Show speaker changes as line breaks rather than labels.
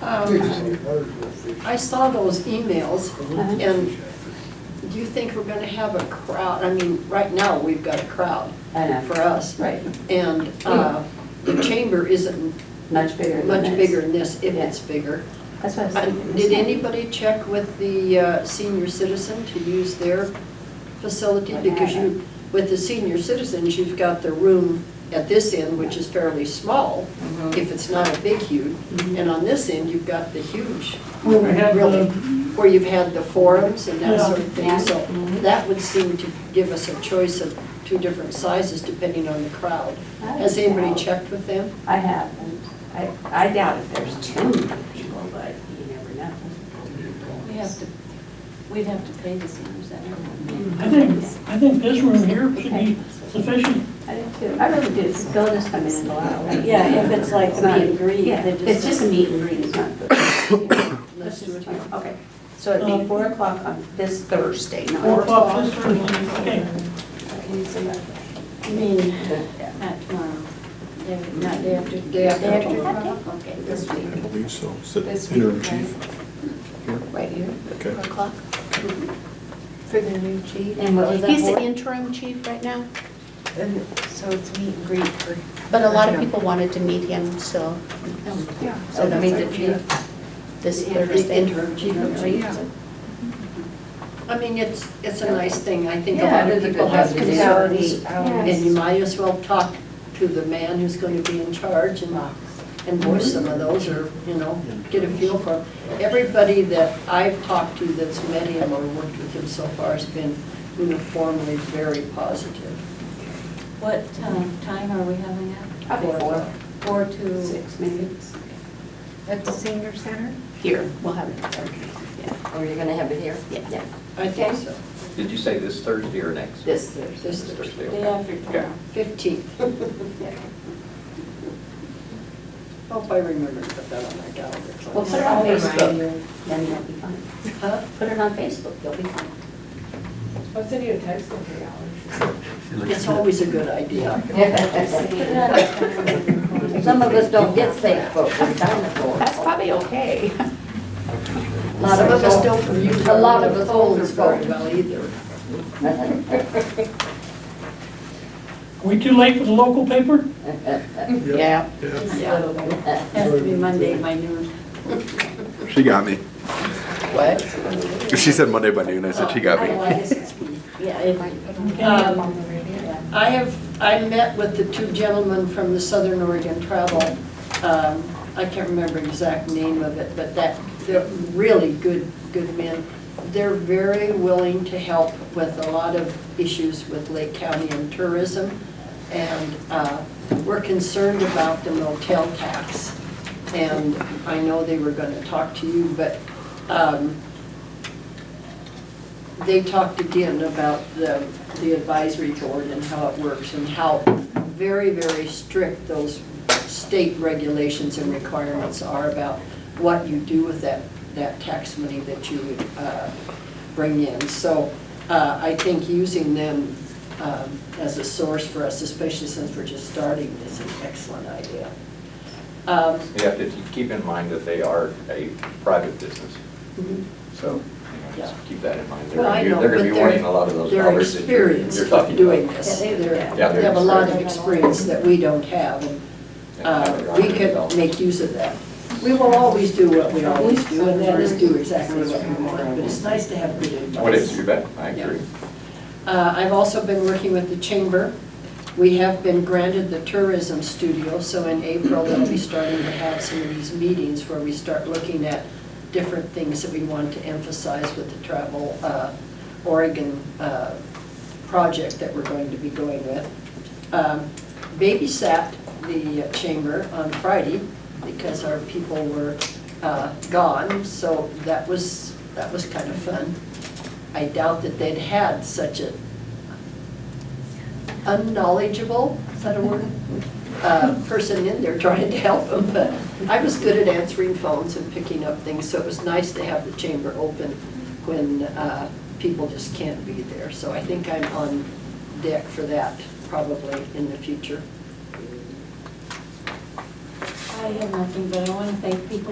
Um, I saw those emails, and do you think we're gonna have a crowd? I mean, right now, we've got a crowd
I know.
for us.
Right,
And uh, the chamber isn't
much bigger than
much
this.
bigger than this, if it's bigger.
That's what I was
Uh,
thinking.
Did anybody check with the uh, senior citizen to use their facility?
I
Because
haven't.
you, with the senior citizens, you've got the room at this end, which is fairly small, if it's not a big huge. And on this end, you've got the huge,
Where we have
really,
the-
where you've had the forums and that sort of
Yeah.
thing. So
Mm-hmm.
that would seem to give us a choice of two different sizes depending on the crowd.
I
Has
don't
anybody
know.
checked with them?
I haven't. I, I doubt if there's too many people, but you never know.
We have to, we'd have to pay the senior center.
I think, I think this room here should be sufficient.
I do too. I really do. They'll just come in and go out.
Yeah, if it's like a
not-
meet and greet,
Yeah,
they just-
It's just a meet and greet, it's not. the-
Let's do it.
Okay, so it'd be four o'clock on this Thursday, not.
Four o'clock this Thursday, okay.
I mean, not tomorrow, day, not day after.
Day after tomorrow.
Okay, this
I
week.
believe so. Is it
This week,
interim
right?
chief?
Right here,
Okay.
four o'clock. For the new chief.
And what was that
He's the
for?
interim chief right now,
And So it's meet and greet for.
but a lot of people wanted to meet him, so. So
Oh,
they'll
meet
meet
the chief.
This
Yeah,
Thursday.
interim chief, yeah. I mean, it's, it's a nice thing, I think a
Yeah,
lot of
it is a
people
good
have
opportunity.
concerns. And you might as well talk to the man who's going to be in charge and, and voice some of those, or, you know, get a feel for. 'em. Everybody that I've talked to that's met him or worked with him so far has been uniformly very positive.
What um, time are we having it?
Probably four,
Four to.
six maybe.
At the senior center?
Here, we'll have it. Okay. Yeah,
Or you're gonna have it here?
yeah,
I think so.
Did you say this Thursday or next?
this Thursday.
This
This Thursday.
Day
okay.
after
Yeah.
tomorrow.
Fifteen.
Yeah.
Hope I remember to put that on my calendar.
We'll put it on Facebook, then you'll be fine.
Huh?
Put it on Facebook, you'll be fine.
I'll send you a text in three hours.
It's always a good idea.
Some of us don't get Facebook, we're dinosaurs. That's probably okay.
A lot of us don't use
A lot
our
of us
phones
older
very well either.
Are we too late for the local paper?
Yeah.
Has to be Monday by noon.
She got me.
What?
She said Monday by noon. I said she got
Oh,
me.
I guess it's- Yeah, it might.
Um, I have, I met with the two gentlemen from the Southern Oregon Travel. Um, I can't remember exact name of it, but that, they're really good, good men. They're very willing to help with a lot of issues with Lake County and tourism. And uh, we're concerned about the motel tax. And I know they were going to talk to you, but um, they talked again about the, the advisory board and how it works and how very, very strict those state regulations and requirements are about what you do with that, that tax money that you uh, bring in. So uh, I think using them um, as a source for us, especially since we're just starting, is an excellent idea. Um,
You have to keep in mind that they are a private business, so you know,
Yeah.
just keep that in mind. They're
Well, I
gonna be-
know,
They're
but
going to be
they're,
wanting a lot of those
they're
dollars that you're
experienced
you're
with
talking
doing
about.
this.
Yeah, they're-
Yeah,
They have a lot of
they're-
experience that we don't have, and
And they're
uh,
on
we
their
could
development.
make use of that. We will always do what we always do, and that is do exactly what we want, but it's nice to have good advice.
What is, you bet, I
Yeah.
agree.
Uh, I've also been working with the chamber. We have been granted the tourism studio, so in April, they'll be starting to have some of these meetings where we start looking at different things that we want to emphasize with the Travel uh, Oregon uh, project that we're going to be going with. Um, Babysat the chamber on Friday because our people were uh, gone, so that was, that was kind of fun. I doubt that they'd had such a unknowledgeable, is that a word? Uh, Person in there trying to help them, but I was good at answering phones and picking up things, so it was nice to have the chamber open when uh, people just can't be there. So I think I'm on deck for that probably in the future.
I have nothing, but I want to thank people